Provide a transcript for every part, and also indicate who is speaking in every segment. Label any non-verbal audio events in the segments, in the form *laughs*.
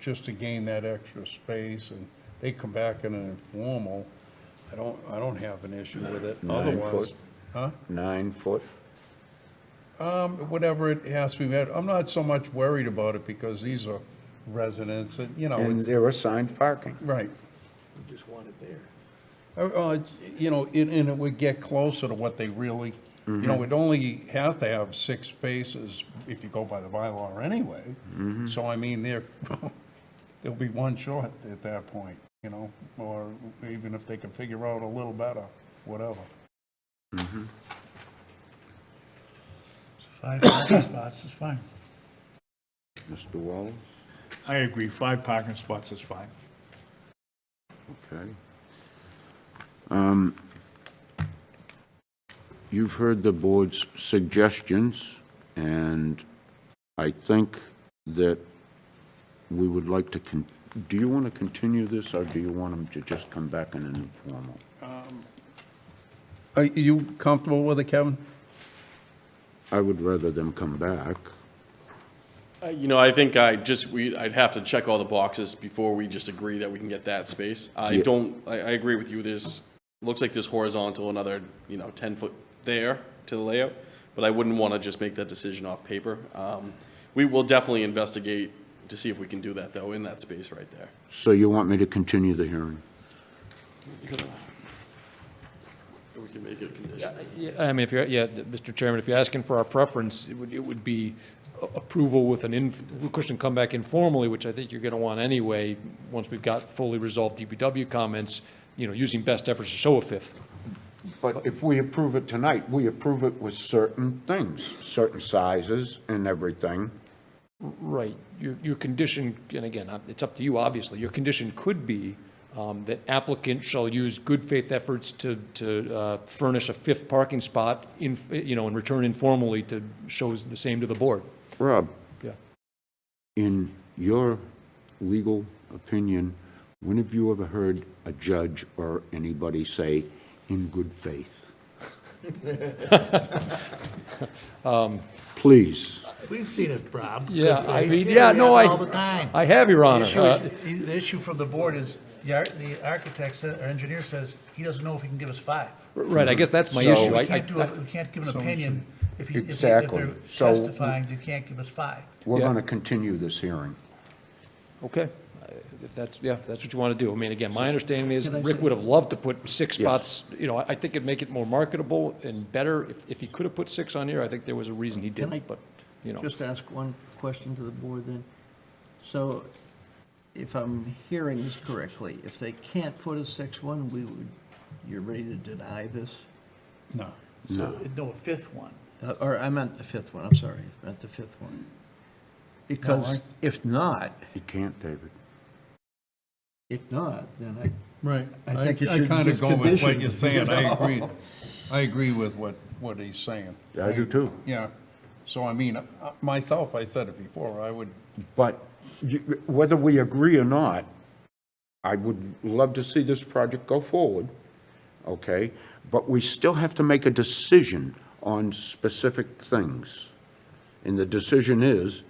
Speaker 1: just to gain that extra space, and they come back in an informal, I don't, I don't have an issue with it.
Speaker 2: Nine foot.
Speaker 1: Otherwise, huh?
Speaker 2: Nine foot?
Speaker 1: Um, whatever it has to be met, I'm not so much worried about it because these are residents and,
Speaker 3: Oh,
Speaker 1: you know,
Speaker 2: And
Speaker 1: it's,
Speaker 2: they're assigned parking.
Speaker 1: right.
Speaker 4: You just want it there.
Speaker 1: Uh, uh, You know, and, and it would get closer to what they really, you know, it only has to have six spaces if you go by the bylaw anyway. So I mean, there, *laughs* there'll be one short at that point, you know, or even if they can figure out a little better, whatever.
Speaker 5: Five parking spots is fine.
Speaker 2: Mr. Wallace?
Speaker 3: I agree, five parking spots is fine.
Speaker 2: Okay. Um, You've heard the board's suggestions, and I think that we would like to, con- do you want to continue this, or do you want them to just come back in an informal?
Speaker 1: Are you comfortable with it, Kevin?
Speaker 2: I would rather them come back.
Speaker 6: Uh, You know, I think I just, we, I'd have to check all the boxes before we just agree that we can get that space. I
Speaker 2: Yeah.
Speaker 6: don't, I, I agree with you, there's, looks like there's horizontal, another, you know, ten foot there to the layout, but I wouldn't want to just make that decision off paper. Um, We will definitely investigate to see if we can do that, though, in that space right there.
Speaker 2: So you want me to continue the hearing?
Speaker 6: We can make it a condition.
Speaker 7: Yeah, yeah, I mean, if you're, yeah, th- Mr. Chairman, if you're asking for our preference, it would, it would be a- approval with an in, question come back informally, which I think you're going to want anyway, once we've got fully resolved DPW comments, you know, using best efforts to show a fifth.
Speaker 2: But if we approve it tonight, we approve it with certain things, certain sizes and everything.
Speaker 7: Right. Your, your condition, and again, uh, it's up to you, obviously, your condition could be um, that applicant shall use good faith efforts to, to uh, furnish a fifth parking spot in, you know, and return informally to, shows the same to the board.
Speaker 2: Rob,
Speaker 7: Yeah.
Speaker 2: in your legal opinion, when have you ever heard a judge or anybody say, "in good *laughs* faith"? Um, Please,
Speaker 5: We've seen it, Rob.
Speaker 7: Yeah,
Speaker 5: Good
Speaker 7: I
Speaker 5: faith.
Speaker 7: mean, yeah,
Speaker 5: We
Speaker 7: no,
Speaker 5: have
Speaker 7: I.
Speaker 5: it All the time.
Speaker 7: I have, Your Honor.
Speaker 5: The
Speaker 7: Uh,
Speaker 5: issue is- The issue from the board is, the ar- the architect sa- or engineer says he doesn't know if he can give us five.
Speaker 7: Uh, Oh, Right, I guess that's my
Speaker 2: So-
Speaker 7: issue.
Speaker 5: We
Speaker 7: I-
Speaker 5: can't do,
Speaker 7: I-
Speaker 5: a- we can't give an opinion if he- if he- if
Speaker 2: Exactly.
Speaker 5: they're
Speaker 2: So-
Speaker 5: testifying, they can't give us five.
Speaker 2: we're
Speaker 7: Yeah.
Speaker 2: going to continue this hearing.
Speaker 7: Okay, Uh, if that's, yeah, if that's what you want to do. I mean, again, my understanding is Rick would have loved to put six spots, you know, I I think it'd make it more marketable and better. If if he could have put six on here, I think there was a reason he
Speaker 4: Can I-
Speaker 7: didn't, but, you know.
Speaker 4: Just ask one question to the board then. So if I'm hearing this correctly, if they can't put a six one, we would, you're ready to deny this?
Speaker 1: No.
Speaker 5: So, no, a fifth one.
Speaker 4: Uh, Or I meant the fifth one, I'm sorry, I meant the fifth one. Because if not,
Speaker 2: You can't, David.
Speaker 4: if not, then I,
Speaker 1: Right.
Speaker 4: I think you
Speaker 1: I
Speaker 4: should
Speaker 1: kind of
Speaker 4: just
Speaker 1: go with what
Speaker 4: condition
Speaker 1: you're
Speaker 4: it.
Speaker 1: saying.
Speaker 4: *laughs*
Speaker 1: I agree. I agree with what, what he's saying.
Speaker 2: Yeah, I do too.
Speaker 1: Yeah. So I mean, uh, myself, I said it before, I would,
Speaker 2: But you- whether we agree or not, I would love to see this project go forward, okay? But we still have to make a decision on specific things. And the decision is,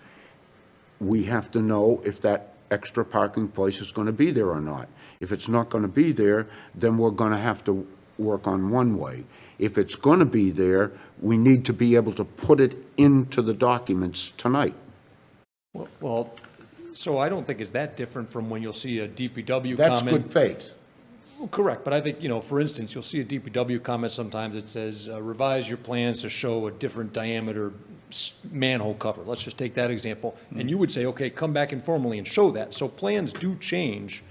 Speaker 2: we have to know if that extra parking place is going to be there or not. If it's not going to be there, then we're going to have to work on one-way. If it's going to be there, we need to be able to put it into the documents tonight.
Speaker 7: Well- Well, so I don't think it's that different from when you'll see a DPW comment.
Speaker 2: That's good faith.
Speaker 7: Well, Correct, but I think, you know, for instance, you'll see a DPW comment sometimes that says uh, revise your plans to show a different diameter s- manhole cover. Let's just take that example. And you would say, okay, come back informally and show that. So plans do change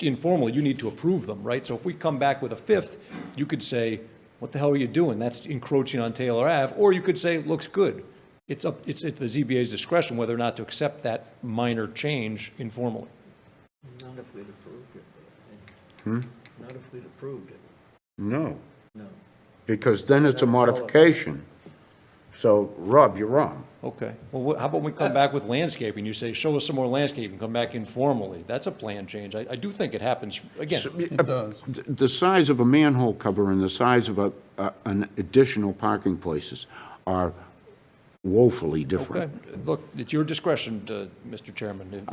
Speaker 7: informally. You need to approve them, right? So if we come back with a fifth, you could say, what the hell are you doing? That's encroaching on Taylor Ave. Or you could say, looks good. It's up, it's at the ZBA's discretion whether or not to accept that minor change informally.
Speaker 4: not if we'd approved it. Hmm? Not if we'd approved it,
Speaker 2: No,
Speaker 4: no.
Speaker 2: because then it's a modification. So, Rob, you're wrong.
Speaker 7: Okay, well, wh- how about we come back with landscaping, you say, show us some more landscaping, come back informally, that's a plan change, I, I do think it happens, again,
Speaker 2: It
Speaker 1: does.
Speaker 2: uh, The size of a manhole cover and the size of a, a- an additional parking places are woefully
Speaker 7: okay,
Speaker 2: different.
Speaker 7: look, it's your discretion, uh, Mr. Chairman.